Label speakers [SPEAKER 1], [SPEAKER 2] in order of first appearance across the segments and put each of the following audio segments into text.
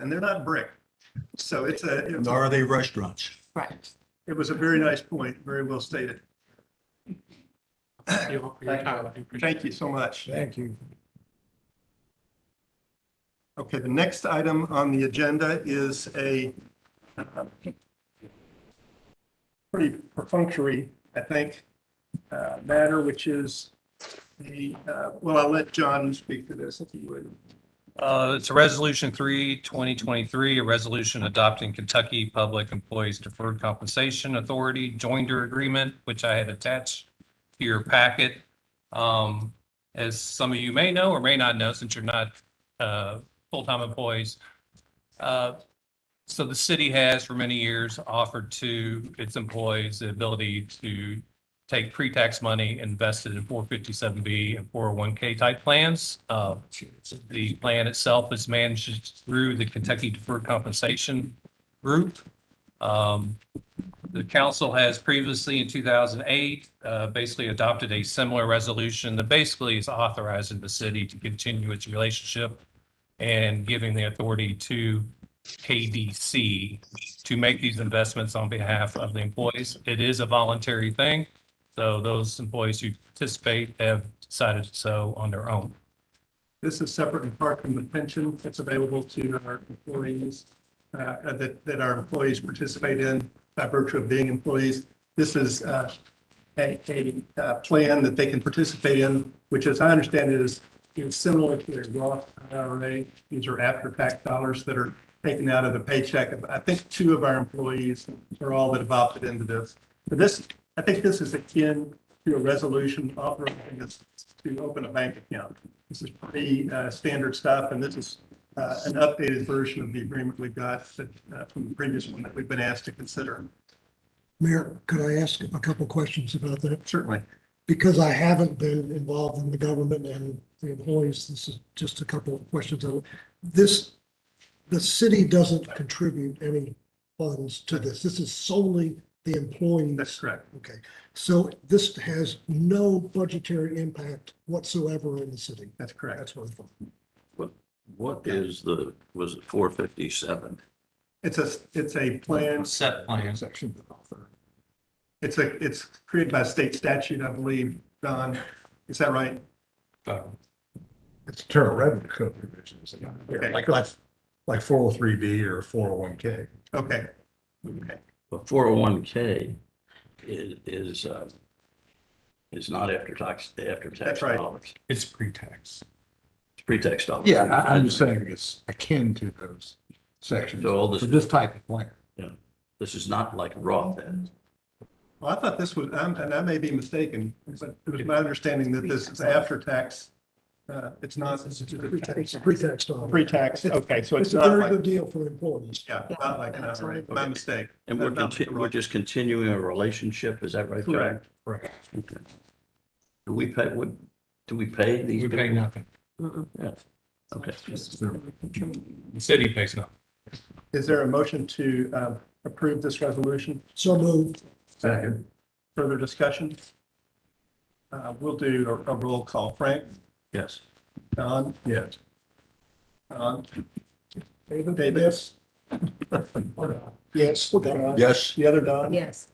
[SPEAKER 1] and they're not brick. So it's a, it's a-
[SPEAKER 2] Are they restaurants?
[SPEAKER 3] Right.
[SPEAKER 1] it was a very nice point, very well stated.
[SPEAKER 4] Thank you for your
[SPEAKER 5] uh,
[SPEAKER 4] time. We appreciate
[SPEAKER 1] Thank you so much.
[SPEAKER 6] Thank you.
[SPEAKER 1] Okay, the next item on the agenda is a uh, pretty perfunctory, I think, uh, matter, which is the, uh, well, I'll let John speak to this if he would.
[SPEAKER 4] Uh, It's a Resolution 3, 2023, a resolution adopting Kentucky Public Employees Deferred Compensation Authority Joinder Agreement, which I had attached to your packet. Um, As some of you may know or may not know, since you're not uh, full-time employees. uh, So the city has for many years offered to its employees the ability to take pre-tax money invested in 457B and 401K type plans. Uh, the plan itself is managed through the Kentucky Deferred Compensation Group. Um, The council has previously in 2008, uh, basically adopted a similar resolution that basically is authorizing the city to continue its relationship and giving the authority to KDC to make these investments on behalf of the employees. It is a voluntary thing, so those employees who participate have decided so on their own.
[SPEAKER 1] This is separate and apart from the pension that's available to our employees, uh, that, that our employees participate in by virtue of being employees. This is uh, a, a uh, plan that they can participate in, which as I understand it is, is similar to their Roth IRA. These are after-tax dollars that are taken out of the paycheck. I think two of our employees are all that have opted into this. But this, I think this is akin to a resolution authorizing us to open a bank account. This is pretty uh, standard stuff, and this is uh, an updated version of the agreement we got that, uh, from the previous one that we've been asked to consider.
[SPEAKER 6] Mayor, could I ask a couple questions about that?
[SPEAKER 1] Certainly.
[SPEAKER 6] Because I haven't been involved in the government and the employees, this is just a couple of questions. This, the city doesn't contribute any funds to this. This is solely the
[SPEAKER 1] That's
[SPEAKER 6] employees.
[SPEAKER 1] correct.
[SPEAKER 6] Okay, so this has no budgetary impact whatsoever on the city.
[SPEAKER 1] That's correct.
[SPEAKER 6] That's what I thought.
[SPEAKER 7] What is the, was it four fifty-seven?
[SPEAKER 1] It's a, it's a plan.
[SPEAKER 4] Set plan.
[SPEAKER 1] Section. It's a, it's created by state statute, I believe, Don. Is that right?
[SPEAKER 4] So,
[SPEAKER 5] It's internal revenue code provisions,
[SPEAKER 1] Okay.
[SPEAKER 5] like, like, like four oh three B or four oh one K.
[SPEAKER 1] Okay.
[SPEAKER 7] But four oh one K is, is, uh, is not after tax, after tax
[SPEAKER 1] That's right.
[SPEAKER 7] dollars,
[SPEAKER 5] It's pre-tax.
[SPEAKER 7] it's pre-tax dollars.
[SPEAKER 5] Yeah, I, I'm just saying it's akin to those sections
[SPEAKER 7] So all
[SPEAKER 5] for
[SPEAKER 7] this,
[SPEAKER 5] this type of plan.
[SPEAKER 7] this is not like Roth then.
[SPEAKER 1] Well, I thought this was, I'm- and I may be mistaken, but it was my understanding that this is after tax. Uh, It's not, it's
[SPEAKER 6] It's pre-tax dollars.
[SPEAKER 1] pre-tax. Okay, so
[SPEAKER 6] It's
[SPEAKER 1] it's
[SPEAKER 6] a
[SPEAKER 1] not
[SPEAKER 6] very
[SPEAKER 1] like,
[SPEAKER 6] good deal for employees.
[SPEAKER 1] yeah, not like an IRA. My mistake.
[SPEAKER 7] And we're,
[SPEAKER 1] That's
[SPEAKER 7] conti- we're
[SPEAKER 1] right.
[SPEAKER 7] just continuing a relationship, is that right? John?
[SPEAKER 1] Correct.
[SPEAKER 5] Correct.
[SPEAKER 7] Okay. Do we pay, what, do we pay these?
[SPEAKER 4] We pay
[SPEAKER 7] people?
[SPEAKER 4] nothing.
[SPEAKER 7] Yeah. Okay.
[SPEAKER 4] The city pays nothing.
[SPEAKER 1] Is there a motion to uh, approve this resolution?
[SPEAKER 6] So moved.
[SPEAKER 5] Second.
[SPEAKER 1] Further discussion? Uh, We'll do a- a roll call. Frank,
[SPEAKER 7] Yes.
[SPEAKER 1] Don,
[SPEAKER 5] Yes.
[SPEAKER 1] Don, Davis,
[SPEAKER 6] Yes.
[SPEAKER 1] Don,
[SPEAKER 5] Yes.
[SPEAKER 1] the other Don.
[SPEAKER 3] Yes.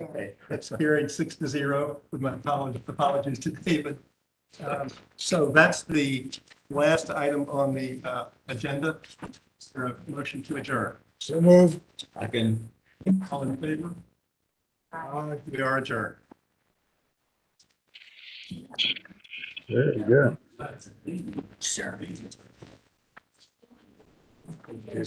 [SPEAKER 1] Okay, That's carried six to zero with my apologies, apologies to David. Um, So that's the last item on the uh, agenda. Is there a motion to adjourn?
[SPEAKER 6] So moved.
[SPEAKER 7] I can.
[SPEAKER 1] All in favor? Aye, We are adjourned.
[SPEAKER 5] There you go.
[SPEAKER 3] Sure.